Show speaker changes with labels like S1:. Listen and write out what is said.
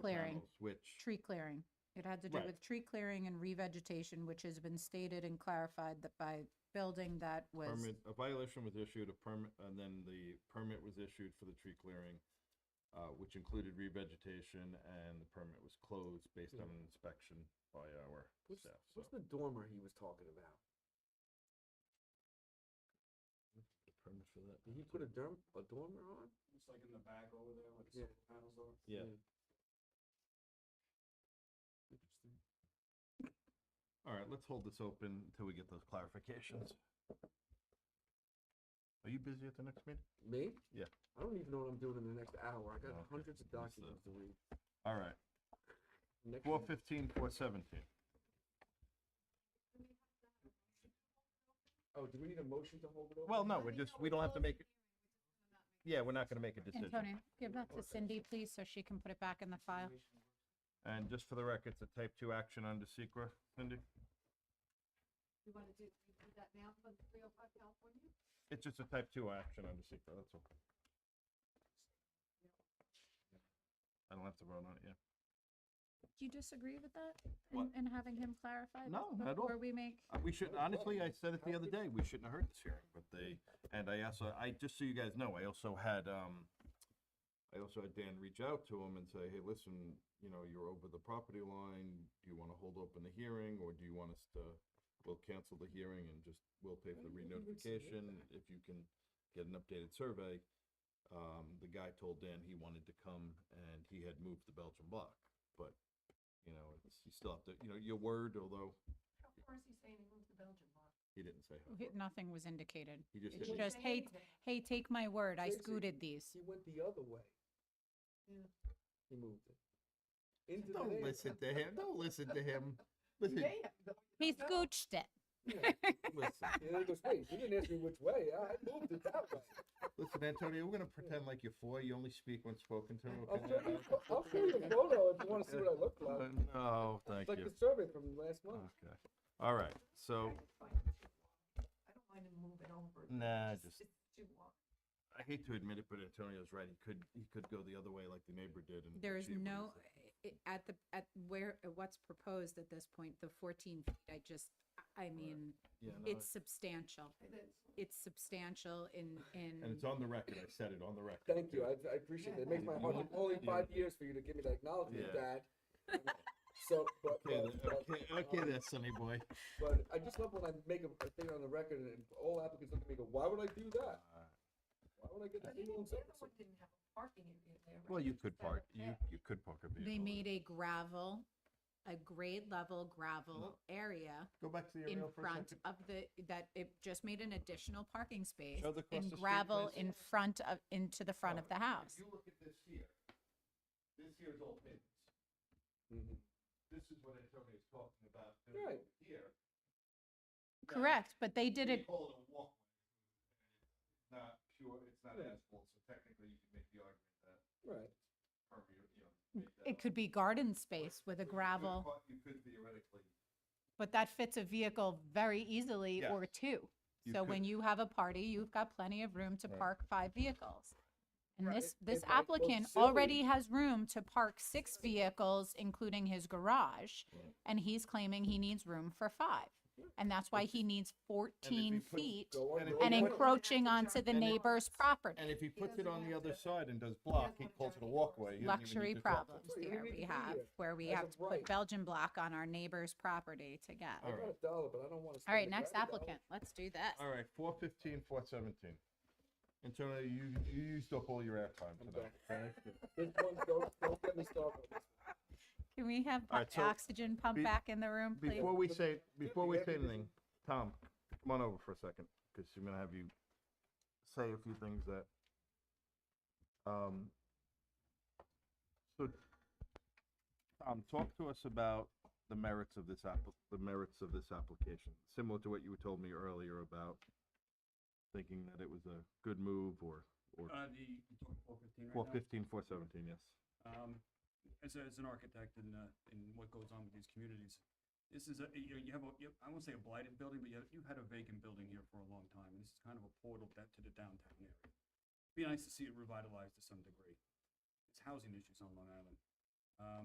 S1: clearing.
S2: panels, Which,
S1: Tree clearing. It had to do
S2: Right.
S1: with tree clearing and revegetation, which has been stated and clarified that by building that was,
S2: permit, a violation was issued, a permit, and then the permit was issued for the tree clearing, uh, which included revegetation, and the permit was closed based on an inspection by our
S3: Hmm. What's,
S2: staff, so.
S3: what's the dormer he was talking about?
S2: the Permit for that.
S3: Did he put a derm, a dormer on?
S4: It's like in the back over there, like
S3: Yeah.
S4: the panels are.
S2: Yeah,
S3: Interesting.
S2: all right, let's hold this open until we get those clarifications. Are you busy at the next meeting?
S3: Me?
S2: Yeah.
S3: I don't even know what I'm doing in the next hour. I got
S2: Okay.
S3: hundreds
S2: That's
S3: of
S2: the-
S3: documents to read.
S2: All right,
S3: Next
S2: four
S3: one.
S2: fifteen, four seventeen.
S3: Oh, do we need a motion to hold it open?
S2: Well, no, we're just, we don't have to make, it. yeah, we're not gonna make a decision.
S1: Antonio, give that to Cindy, please, so she can put it back in the file.
S2: And just for the record, it's a type two action under secra, Cindy?
S5: You want to do, do that now for the three oh five California?
S2: It's just a type two action under secra, that's all. I don't have to vote on it, yeah.
S1: Do you disagree with that?
S2: What?
S1: And having him clarify?
S2: No, not at all.
S1: Where we make,
S2: Uh, We should, honestly, I said it the other day, we shouldn't have heard this hearing, but they, and I also, I, just so you guys know, I also had, um, I also had Dan reach out to him and say, hey, listen, you know, you're over the property line, do you wanna hold open the hearing, or do you want us to, we'll cancel the hearing and just, we'll pay for the re-notification if you can get an updated survey. Um, the guy told Dan he wanted to come and he had moved to Belgian block, but, you know, it's, you still have to, you know, your word, although
S5: How far is he saying he moved to Belgium? Mark?
S2: he didn't say. how
S1: he-
S2: far.
S1: nothing was indicated.
S2: He just
S1: It's
S2: hit me.
S1: just,
S5: Say
S1: hey,
S5: anything.
S1: hey, take my word, I
S3: Tracy.
S1: scooted these.
S3: He went the other way.
S5: Yeah.
S3: He moved it. Into the
S2: Don't
S3: neighbor-
S2: listen to him. Don't listen to him. Listen,
S5: Yeah, yeah.
S1: He
S5: No.
S1: scooched it.
S3: Yeah.
S2: listen,
S3: And then he goes, wait, you didn't ask me which way. I I moved it that way.
S2: listen, Antonio. We're gonna pretend like you're four. You only speak when spoken to.
S3: I'll
S2: Okay?
S3: show you, I'll show you a photo if you want to see what I look like.
S2: Uh, no, thank
S3: It's like
S2: you.
S3: the survey from last month.
S2: Okay. All right.
S5: I
S2: So
S5: just find it too long. I don't mind him moving over. but
S2: Nah,
S5: it's
S2: just-
S5: It's too long.
S2: I hate to admit it, but Antonio's right. He could he could go the other way like the neighbor did. And
S1: There is
S2: achieve what he
S1: no,
S2: said.
S1: i- at the, at where, at what's proposed at this point, the fourteen feet, I just, I mean,
S2: Yeah, no,
S1: it's substantial.
S5: It is.
S1: It's substantial in, in.
S2: and it's on the record. I said it on the record.
S3: Thank you,
S2: too.
S3: I, I appreciate it. It
S5: Yeah,
S3: makes my
S2: thank
S3: heart,
S2: you.
S3: it's only
S2: Yeah.
S3: five years for you to give me the acknowledgement,
S2: Yeah.
S3: Dad. So, but,
S2: Okay, th-
S3: but,
S2: okay,
S3: but,
S2: okay,
S3: um,
S2: there, Sonny boy.
S3: but I just love when I make a a thing on the record and all applicants look at me and go, why would I do that? Why would I get that?
S5: But
S3: email
S5: even
S3: and
S5: the
S3: say
S5: other
S3: so-
S5: one didn't have a parking area there. right?
S2: Well, you could
S5: Just have a
S2: park. You
S5: path.
S2: you could park a vehicle.
S1: They
S2: there.
S1: made a gravel, a grade level gravel area
S2: Go back to the
S1: in
S2: aerial for Mm-hmm. a
S1: front
S2: second.
S1: of the, that it just made an additional parking space.
S2: Show the across
S1: And
S2: the street,
S1: gravel
S2: please.
S1: in front of, into the front of the
S2: Alright,
S1: house.
S2: If you look at this here, this here's all pins.
S3: Mhm.
S2: This is what Antonio's talking about. There's
S3: Right.
S2: one Here. Now,
S1: Correct, but they did
S2: we
S1: it,
S2: call it a walkway. It's Not pure, it's not
S3: Right.
S2: asphalt, so technically you can make the argument that
S3: Right,
S2: permeable, you know. make that
S1: it
S2: a-
S1: could be garden space
S2: but-
S1: with a
S2: but you could
S1: gravel,
S2: call- You could theoretically.
S1: but that fits a vehicle very easily
S2: Yes.
S1: or two.
S2: You
S1: So
S2: could-
S1: when you have a party, you've got plenty of room to
S2: Right.
S1: park five vehicles. And
S3: Right.
S1: this, this
S3: If I go
S1: applicant
S3: silly-
S1: already has room to park six vehicles, including his garage.
S2: Right.
S1: And he's claiming he needs room for five. And that's why he needs fourteen
S2: put-
S1: feet
S3: go on.
S2: And if
S3: go
S2: you
S1: and
S3: on.
S2: put-
S1: encroaching onto the
S2: And it-
S1: neighbor's property.
S2: And if he puts it
S5: doesn't
S2: on the
S5: have
S2: other
S5: to-
S2: side and does
S5: doesn't
S2: block, he
S5: want to
S2: calls it a
S5: dirty
S2: walkway. You don't even
S1: Luxury
S2: need to talk to
S1: problems
S3: Right, you
S1: there
S3: need to
S1: we
S3: be
S1: have,
S3: there
S1: where we
S3: as
S1: have
S3: of
S1: to put
S3: right.
S1: Belgian block on our neighbor's property to get.
S3: I got a dollar, but I don't want to.
S1: All right, next applicant, let's do this.
S2: All right, four fifteen, four seventeen. Antonio, you, you used up all your airtime
S3: I'm
S2: tonight, okay?
S3: This one, don't, don't get me started. on this one.
S1: Can we have
S2: All
S1: pu-
S2: right, so
S1: oxygen pump
S2: be-
S1: back in the room, please?
S2: Before we say, before we say
S3: Yeah, because-
S2: anything, Tom, come on over for a second, because I'm gonna have you say a few things that, um, so, Tom, talk to us about the merits of this app, the merits of this application, similar to what you told me earlier about thinking that it was a good move or, or
S4: Uh, the, you four fifteen right now?
S2: four fifteen, four seventeen, yes.
S4: Um, as, a- as an architect and, uh, and what goes on with these communities, this is a, you, you have a, you, I won't say a blighted building, but you, you had a vacant building here for a long time, and this is kind of a portal that, to the downtown area. Be nice to see it revitalized to some degree. It's housing issues on Long Island. Um,